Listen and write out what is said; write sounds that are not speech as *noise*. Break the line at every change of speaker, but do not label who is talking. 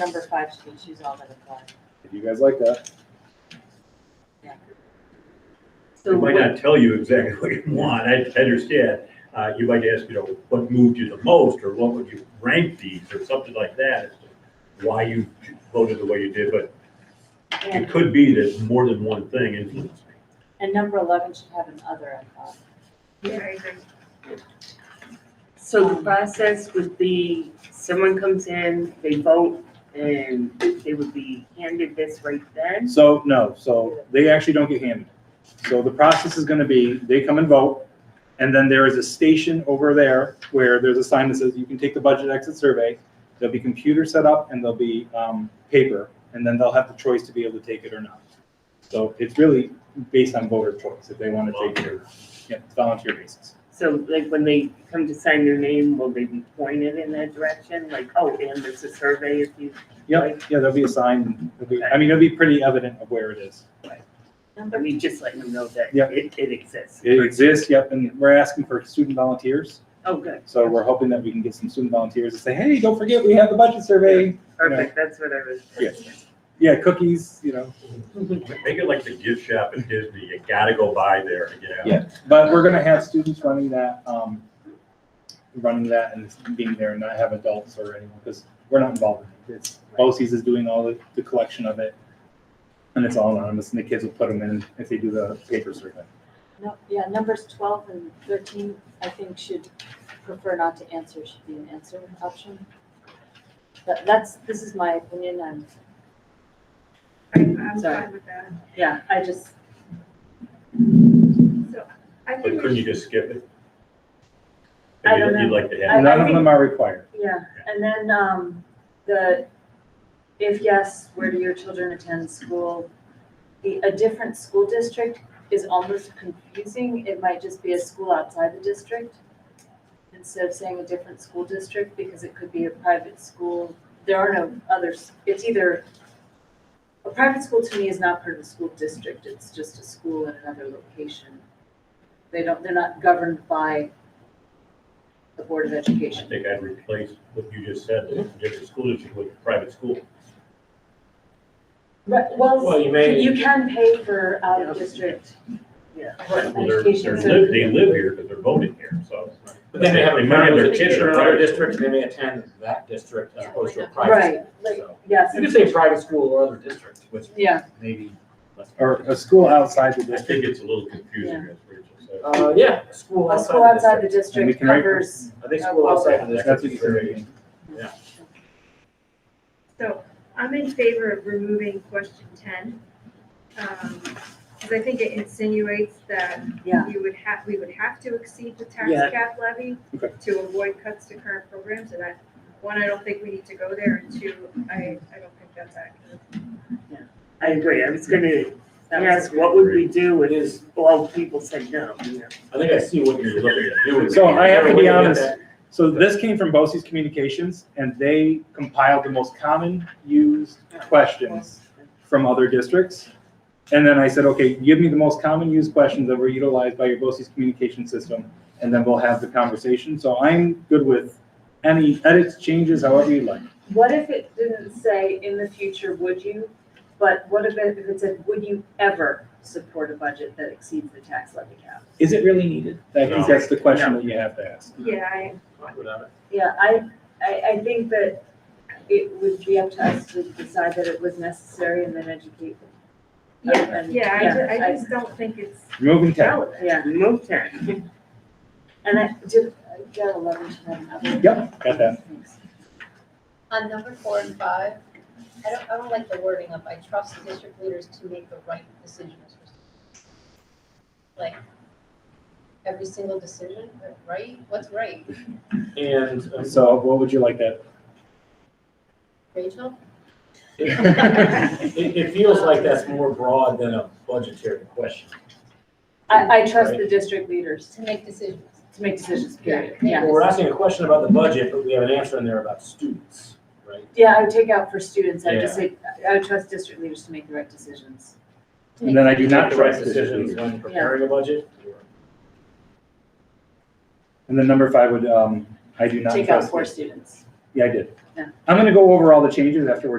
Number five, she, she's all that applies.
If you guys like that,
They might
So
not tell you exactly what you want, I I understand. Uh, You might ask, you know, what moved you the most, or what would you rank these, or something like that, as to why you voted the way you did, but it
And,
could be that more than one thing influenced me.
and number eleven should have an other, I thought.
So the process would be, someone comes in, they vote, and they would be handed this right then?
so, no, so they actually don't get handed. So the process is gonna be, they come and vote, and then there is a station over there where there's a sign that says you can take the budget exit survey. There'll be computer set up and there'll be, um, paper, and then they'll have the choice to be able to take it or not. So it's really based on voter choice, if they wanna take it or, not. yeah, it's volunteer basis.
So like when they come to sign their name, will they be pointed in that direction? Like, oh, and there's a survey if you,
Yeah, yeah, there'll be a sign, it'll be- I mean, it'll be pretty evident of where it is.
I
Number,
mean, just letting them know that
Yeah.
it, it exists.
It exists, yep, and we're asking for student volunteers.
Oh, good,
So we're hoping that we can get some student volunteers to say, hey, don't forget, we have the budget survey.
perfect, that's what I was.
Yeah. Yeah, cookies, you know,
Make it like the gift shop at Disney, you gotta go by there to get out.
Yeah. but we're gonna have students running that, um, running that and being there and not have adults or anyone, because we're not involved in it. It's, BOCES is doing all the, the collection of it. And it's all anonymous and the kids will put them in if they do the paper survey.
no, yeah, numbers twelve and thirteen, I think should prefer not to answer, should be an answer option. That, that's, this is my opinion, I'm,
I'm, I'm
Sorry.
fine with that.
yeah, I just,
I
But
think
couldn't
we
you just skip it?
I don't know.
You'd like to have,
None of them are required.
yeah, and then, um, the, if yes, where do your children attend school? The, a different school district is almost confusing, it might just be a school outside the district. Instead of saying a different school district, because it could be a private school, there are no others, it's either. A private school to me is not part of the school district, it's just a school in another location. They don't, they're not governed by the Board of
I
Education.
think I'd replace what you just said, the different school district with private school.
Right, well,
Well, you
you
may-
you can pay for out of district. uh,
Yeah.
Well, they're, they're,
Education
li- they
services.
live here, but they're voting here, so.
But then they have
They
a
might have
problem
their
with
kids
kids
in
in
a
another
private
district, and they may attend that district as opposed to a private
Right,
school.
like,
So
yes,
You could say private school or other district, which
yeah,
maybe less.
Or a school outside the
I think
district.
it's a little confusing, as Rachel said.
Uh, yeah, a school
a
outside.
school
the
outside the
district.
And we
district
can write-
covers,
I think school outside the
That's
district
what
is
you're
very,
saying.
so I'm in favor of removing question ten. Because I think it insinuates that
Yeah.
you would have, we would have to exceed the tax
Yeah.
cap levy
Okay.
to avoid cuts to current programs, and I, one, I don't think we need to go there, and two, I, I don't think that's accurate.
I agree, I was gonna
That was
ask, what would we do if all people said no, you know?
I think I see what you're looking at doing.
So I have to be
Everybody get
honest.
that.
So this came from BOCES Communications, and they compiled the most common used questions from other districts. And then I said, okay, give me the most common used questions that were utilized by your BOCES communication system, and then we'll have the conversation. So I'm good with any edits, changes, however you like.
what if it didn't say in the future, would you? But what if it, if it said, would you ever support a budget that exceeds the tax levy cap?
Is it really needed? I think
No.
that's the question that you have to ask.
Yeah, I,
Fine without it.
Yeah, I, I, I think that it would be up to us to decide that it was necessary and then educate. them.
Yeah,
And-
yeah, I ju- I just don't think it's
Moving tab.
relevant.
Yeah,
Remove ten.
and I did, I got eleven to have another.
Yep, got that.
Thanks.
On number four and five, I don't, I don't like the wording of, I trust the district leaders to make the right decisions. for students." Like, every single decision, right? What's right?
And. um,
So what would you like that?
Rachel?
*laughs*
It, it- it feels like that's more broad than a budgetary question.
I, I trust the district leaders
To make decisions.
to make decisions,
Yeah.
period, yeah.
We're asking a question about the budget, but we have an answer in there about students, right?
Yeah, I would take out for students, I would just say, I would trust district leaders to make the right decisions.
to
And then I
make-
do not
The right
trust this.
decisions when preparing a budget.
And then number five would, um, I do not
Take out
trust.
for students.
Yeah, I did.
Yeah.
I'm gonna go over all the changes after we're done.